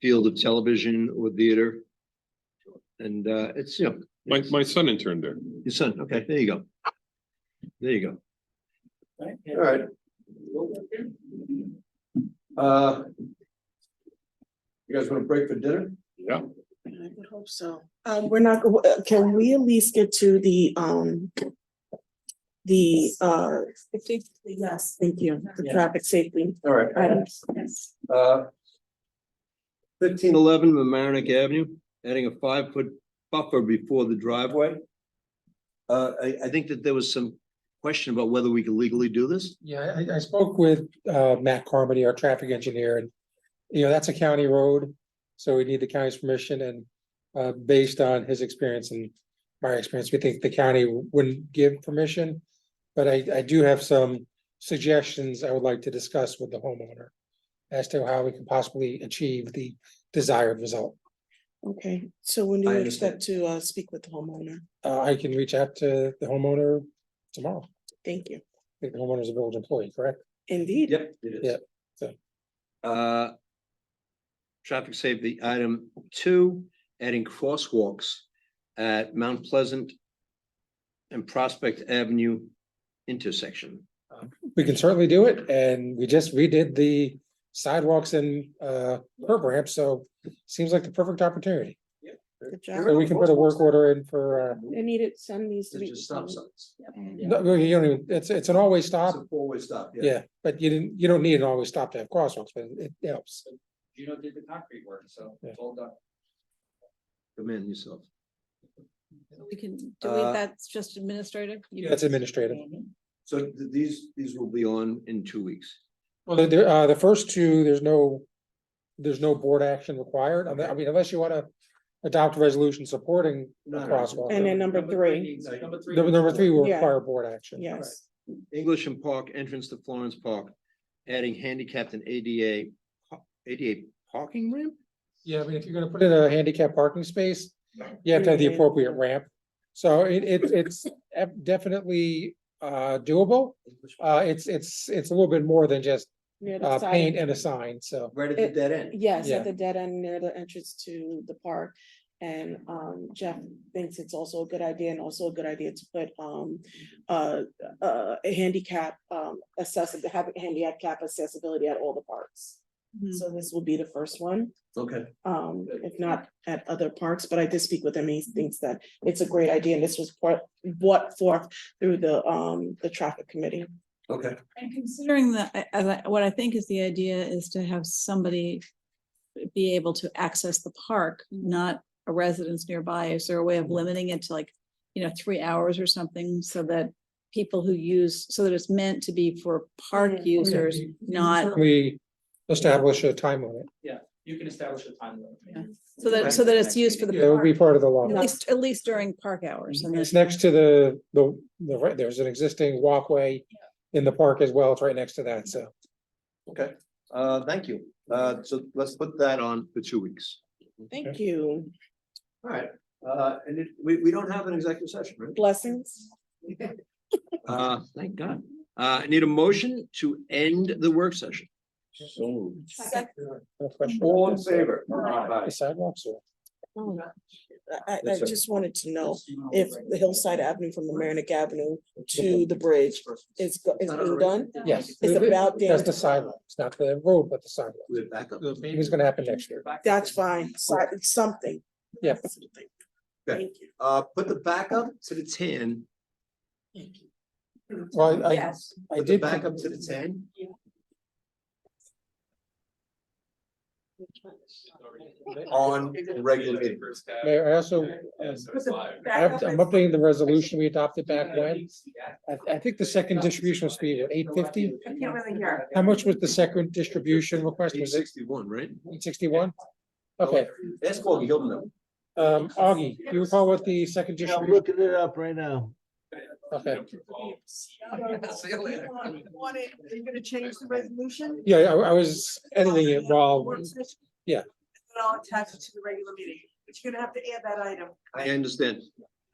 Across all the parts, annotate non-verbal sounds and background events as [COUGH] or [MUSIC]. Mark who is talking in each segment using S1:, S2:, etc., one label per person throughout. S1: field of television or theater. And uh, it's, you know.
S2: My,
S1: it's-
S2: my son interned there.
S1: Your son, okay, there you go. There you go.
S3: All right. Uh. You guys want to break for dinner?
S2: Yeah.
S4: I would hope so. Um, we're not, uh, can we at least get to the, um, the, uh, yes, thank you, the
S3: Yeah.
S4: traffic safety Um,
S3: All right.
S4: items.
S3: Uh,
S1: Fifteen eleven Mamaroneck Avenue, adding a five foot buffer before the driveway. Uh, I, I think that there was some question about whether we could legally do this.
S5: Yeah, I, I spoke with, uh, Matt Carmody, our traffic engineer, and, you know, that's a county road. So we need the county's permission and, uh, based on his experience and my experience, we think the county wouldn't give permission. But I, I do have some suggestions I would like to discuss with the homeowner as to how we can possibly achieve the desired result.
S4: Okay, so when do
S1: I
S4: you
S1: understand.
S4: expect to, uh, speak with the homeowner?
S5: Uh, I can reach out to the homeowner tomorrow. I
S4: Thank you.
S5: think the homeowner's a village employee, correct?
S4: Indeed.
S1: Yep. it is.
S5: Yep.
S1: Uh. Traffic safety item two, adding crosswalks at Mount Pleasant. And Prospect Avenue intersection.
S5: We can certainly do it, and we just redid the sidewalks and uh curb ramp, so seems like the perfect opportunity.
S4: Good
S5: So
S4: job.
S5: we can put a work order in for uh,
S4: I need it, some needs to
S3: it's
S4: be.
S3: just stop signs.
S5: no, you don't even, it's it's an always
S3: It's
S5: stop,
S3: a four-way stop, yeah.
S5: yeah, but you didn't, you don't need an always stop to have crosswalks, but it helps.
S3: You know, did the concrete work, so
S5: it's
S3: all done.
S1: Come in yourself.
S6: We can
S1: Uh,
S6: delete that's just administrative. You-
S5: That's administrative.
S3: Mm-hmm.
S1: So th- these, these will be on in two weeks.
S5: Well, the- the uh the first two, there's no, there's no board action required, I mean, unless you wanna adopt a resolution supporting a
S1: No, no.
S5: crosswalk.
S4: And then number three,
S3: Number three.
S5: Number number three will
S4: Yeah.
S5: require board action.
S4: yes.
S1: English and Park entrance to Florence Park, adding handicapped and ADA, pa- ADA parking ramp?
S5: Yeah, I mean, if you're gonna put in a handicap parking space, you have to have the
S4: Yeah.
S5: appropriate ramp. So it, it, it's ef- definitely, uh, doable. Uh, it's, it's, it's a little bit more than just,
S4: Near the
S5: uh,
S4: side.
S5: paint and a sign, so.
S1: Right at
S4: the
S1: dead end.
S4: Yes,
S5: Yeah.
S4: at the dead end near the entrance to the park. And um Jeff thinks it's also a good idea and also a good idea to put um uh uh a handicap um accessible, have handicap accessibility at all the parks.
S6: Mhm.
S4: So this will be the first one,
S3: Okay,
S4: um if not at other parks, but I did speak with him. He thinks that it's a great idea and this was part brought forth through the um the traffic committee.
S3: okay.
S6: And considering that, I- I like- what I think is the idea is to have somebody be able to access the park, not a residence nearby. Is there a way of limiting it to like, you know, three hours or something so that people who use, so that it's meant to be for
S4: Mhm. Oh,
S6: park
S4: yeah.
S6: users, not,
S5: We establish a time limit.
S3: You can establish a time limit.
S6: so that, so that it's used for the
S5: It would be
S6: park,
S5: part of the law.
S6: at least, at least during park hours.
S7: [LAUGHS]
S6: and
S5: It's
S6: then-
S5: next to the, the, the, right- there's an existing walkway in the park as well. It's right next to that, so.
S3: Okay, uh, thank you.
S1: Uh, so let's put that on for two weeks.
S4: Thank you.
S3: All right, uh, and it, we, we don't have an executive session, right?
S4: Blessings.
S1: Uh, thank God. Uh, I need a motion to end the work session.
S3: So.
S5: No question about
S3: All in
S5: that.
S3: favor?
S5: The sidewalks or?
S4: I, I- I
S3: Yes, sir.
S4: just wanted to know if the Hillside Avenue from Amerenik Avenue to the bridge is, go- is being done.
S5: Yes.
S4: It's about
S5: That's
S4: damage.
S5: the sidewalks, not the road, but the sidewalk.
S3: We're back up.
S5: The meeting's gonna happen next year.
S4: That's fine, so something.
S5: Yeah.
S4: Something. Thank you.
S3: Uh, put the back up,
S1: To the ten.
S5: Well, I,
S6: Yes.
S5: I
S3: put the
S5: did.
S3: back up to the ten. on regular meeting.
S5: Mayor, I also, um, I have- I'm updating the resolution we adopted back when. I, I think the second distribution was be eight fifty.
S7: I can't really hear.
S5: How much was the second distribution request?
S1: Eight
S5: Was it
S1: sixty-one, right?
S5: sixty-one? Okay,
S3: Ask Augie, he'll know.
S5: um, Augie, do you recall what the second distribution?
S1: looking it up right now.
S5: Okay,
S3: See you later.
S7: Want it, are you gonna change the resolution?
S5: yeah, I, I was editing it while,
S7: Work session?
S5: yeah.
S7: And Then I'll attach it to the regular meeting, but you're gonna have to add that item.
S1: I understand.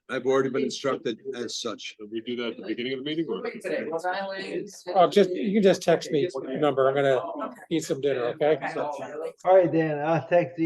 S1: I've already been instructed as such.
S2: Did we do that at the beginning of the meeting or?
S5: Oh, just, you can just text me your number. I'm gonna eat some dinner, okay?
S8: All right, Dan, I'll text you.